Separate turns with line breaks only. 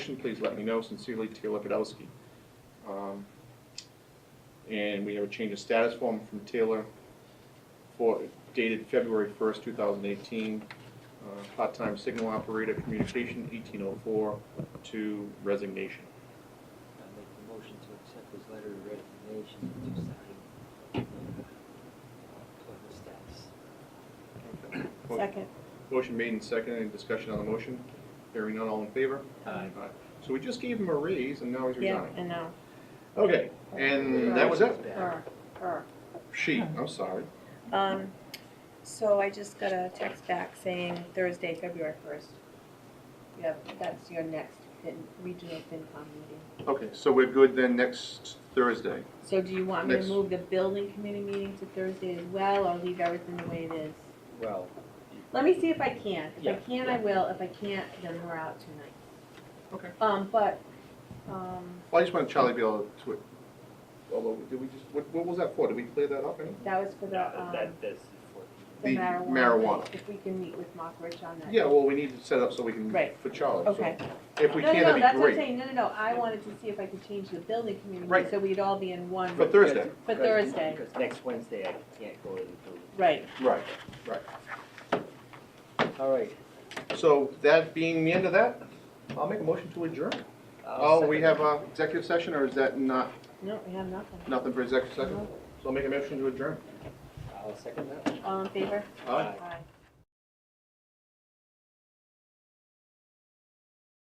please let me know. Sincerely, Taylor Podolsky. Um, And we have a change of status form from Taylor for, dated February 1st, 2018, uh, part-time signal operator, communication 1804, to resignation.
I make the motion to accept his letter of resignation and to sign uh, employment status.
Second.
Motion made and seconded. Any discussion on the motion? Hearing none, all in favor?
Aye.
So we just gave him a raise, and now he's
Yeah,
resigning.
and now,
Okay, and that was it?
or, or.
She, I'm sorry.
Um, so I just got a text back saying Thursday, February first. Yeah, that's your next fin- regional FinCom meeting.
Okay, so we're good then next Thursday?
So do you want me to
Next.
move the building committee meeting to Thursday as well, or leave everything the way it is?
Well,
Let me see if I can. If I
Yeah,
can, I will. If I can't, then we're out tonight.
Okay.
Um, but, um,
Well, I just want Charlie to be able to, although, did we just, what, what was that for? Did we clear that up? any?
that was for the,
that,
um,
that- that's for,
the
The
marijuana.
marijuana.
If we can meet with Mark Rich on that.
Yeah, well, we need to set up so we can,
Right.
for Charlie. so
Okay.
If we
No,
can,
no, no,
that'd
that's
be
what I'm
great.
saying, no, no, no, I wanted to see if I could change the building community,
Right.
so we'd all be in one.
For Thursday.
For Thursday,
because next Wednesday I can't go to the building.
right,
Right.
All right.
So that being the end of that, I'll make a motion to adjourn.
I'll
Oh, we
second.
have a executive session, or is that not,
no, we have nothing,
nothing for executive session?
No.
So I'll make a motion to adjourn.
I'll second that.
all in favor?
Aye.
Aye.
Aye.